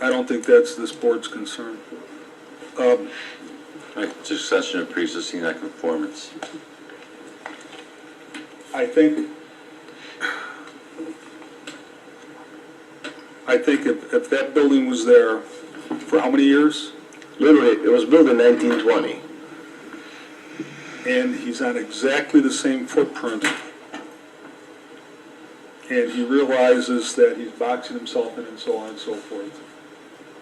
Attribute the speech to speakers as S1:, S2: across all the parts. S1: I don't think that's this board's concern. Um,
S2: Right, succession of pre-existing non-conformance.
S1: I think, I think if, if that building was there for how many years,
S3: Literally, it was built in 1920.
S1: and he's on exactly the same footprint, and he realizes that he's boxing himself in and so on and so forth.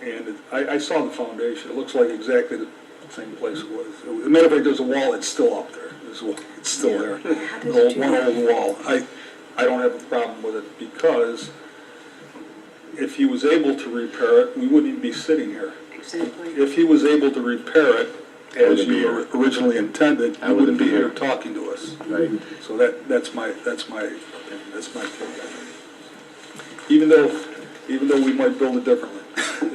S1: And it- I, I saw the foundation, it looks like exactly the same place it was. As a matter of fact, there's a wall, it's still up there, there's a wall, it's still there. An old- One old wall. I, I don't have a problem with it, because if he was able to repair it, we wouldn't even be sitting here.
S4: Exactly.
S1: If he was able to repair it as
S2: wouldn't be
S1: you
S2: here.
S1: originally intended,
S2: I
S1: you wouldn't
S2: wouldn't
S1: be
S2: be
S1: here
S2: here.
S1: talking to us.
S2: Right.
S1: So that, that's my, that's my, opinion. that's my take. on it. Even though, even though we might build it differently,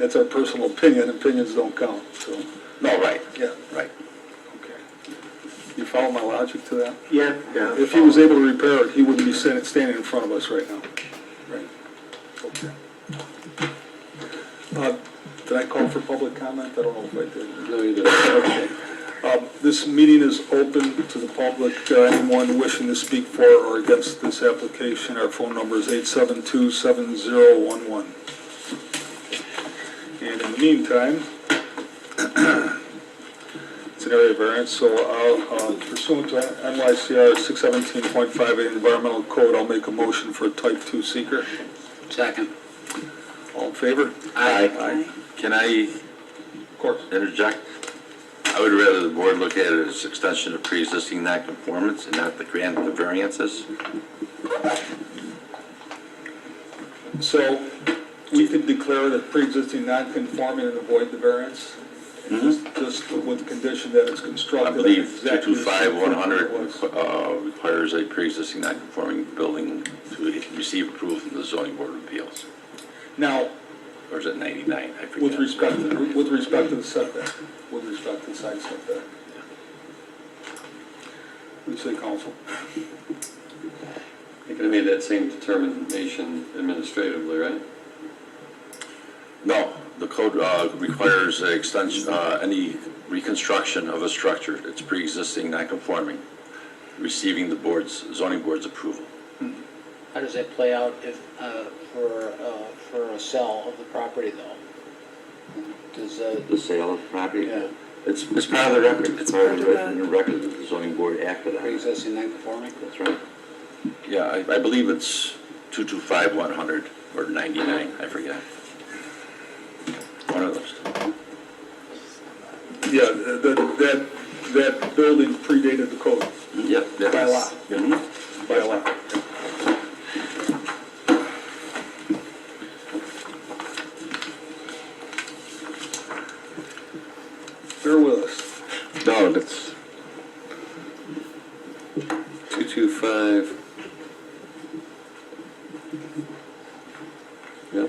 S1: that's our personal opinion, opinions don't count, so,
S2: No, right,
S1: yeah,
S2: right.
S1: okay. You follow my logic to that?
S3: Yeah, yeah.
S1: If he was able to repair it, he wouldn't be sitting, standing in front of us right now. Right. Okay. Uh, Did I call for public comment? I don't know if I did.
S3: No, you didn't.
S1: Okay. Um, This meeting is open to the public. Uh, Anyone wishing to speak for or against this application, our phone number is 872-7011. And in the meantime, it's an area variance, so I'll, uh, pursuant to NYCR 617.58 Environmental Code, I'll make a motion for a type 2 seeker.
S2: Second.
S1: All in favor?
S2: Aye. Can I
S1: Of course.
S2: interject? I would rather the board look at it as extension of pre-existing non-conformance and not the grant of the variances.
S1: So we could declare that pre-existing non-conforming and avoid the variance? and Just just with the condition that it's
S2: Mm-hmm. I
S1: constructed.
S2: believe
S1: exactly the same form it
S2: 225100
S1: was.
S2: uh, requires a pre-existing non-conforming building to receive approval from the zoning board of appeals.
S1: Now,
S2: Or is it 99? I forget.
S1: with respect, to- with respect to the setback, with respect to the side setback. What do you say, counsel?
S5: They could have made that same determination administratively, right?
S2: No, the code uh, requires a extension, uh, any reconstruction of a structure that's pre-existing non-conforming, receiving the board's, zoning board's approval.
S6: How does that play out if, uh, for, uh, for a sale of the property though? Does, uh,
S7: the sale of property.
S6: Yeah.
S7: It's, it's part of the record, it's part of the
S4: Part of
S7: record, the record that the zoning board acted on. it.
S6: pre-existing non-conforming?
S7: That's right.
S2: Yeah, I I believe it's 225100 or 99, I forget. One of those.
S1: Yeah, that, that, that building predated the code
S2: Yeah, yeah.
S1: By law.
S2: Mhm.
S1: by a lot. Bear with us.
S3: No, that's,
S5: 225.
S2: oh
S5: Yep.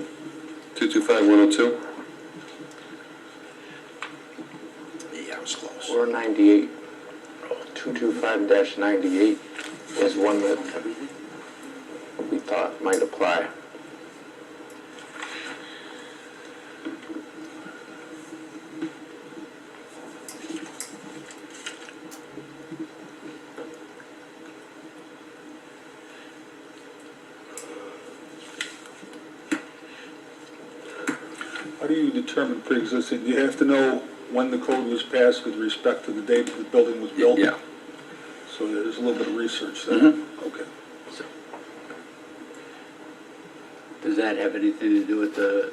S5: 225102?
S2: Yeah, I was close.
S7: Or 98, 225-98 is one that we thought might apply.
S1: How do you determine pre-existing? Do you have to know when the code was passed with respect to the date the building was built?
S2: Yeah.
S1: So there's a little bit of research there.
S2: Mhm.
S7: Mm-hmm.
S1: Okay.
S2: So,
S6: Does that have anything to do with the,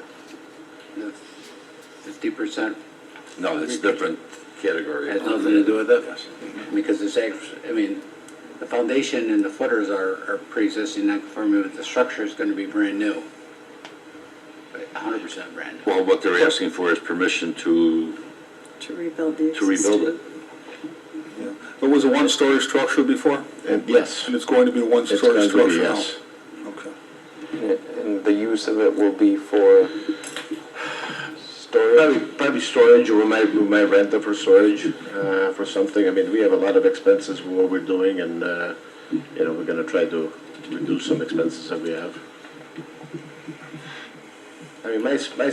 S6: the fifty percent?
S2: No, that's different category.
S6: Has nothing to do with it?
S2: Yes.
S6: Because it's actually, I mean, the foundation and the footers are, are pre-existing non-conforming, but the structure is gonna be brand new. hundred percent brand new.
S2: Well, what they're asking for is permission to
S4: To rebuild the
S2: to rebuild it.
S1: Yeah. There was a one-story structure before,
S7: And yes,
S1: and it's going to be a
S7: it's
S1: one-story
S7: going to be
S1: structure now?
S7: yes.
S1: Okay.
S3: and the use of it will be for storage?
S7: Probably, probably storage, we might, we might rent it for storage, uh, for something. I mean, we have a lot of expenses with what we're doing and, uh, you know, we're gonna try to reduce some expenses that we have. I mean, my, s- my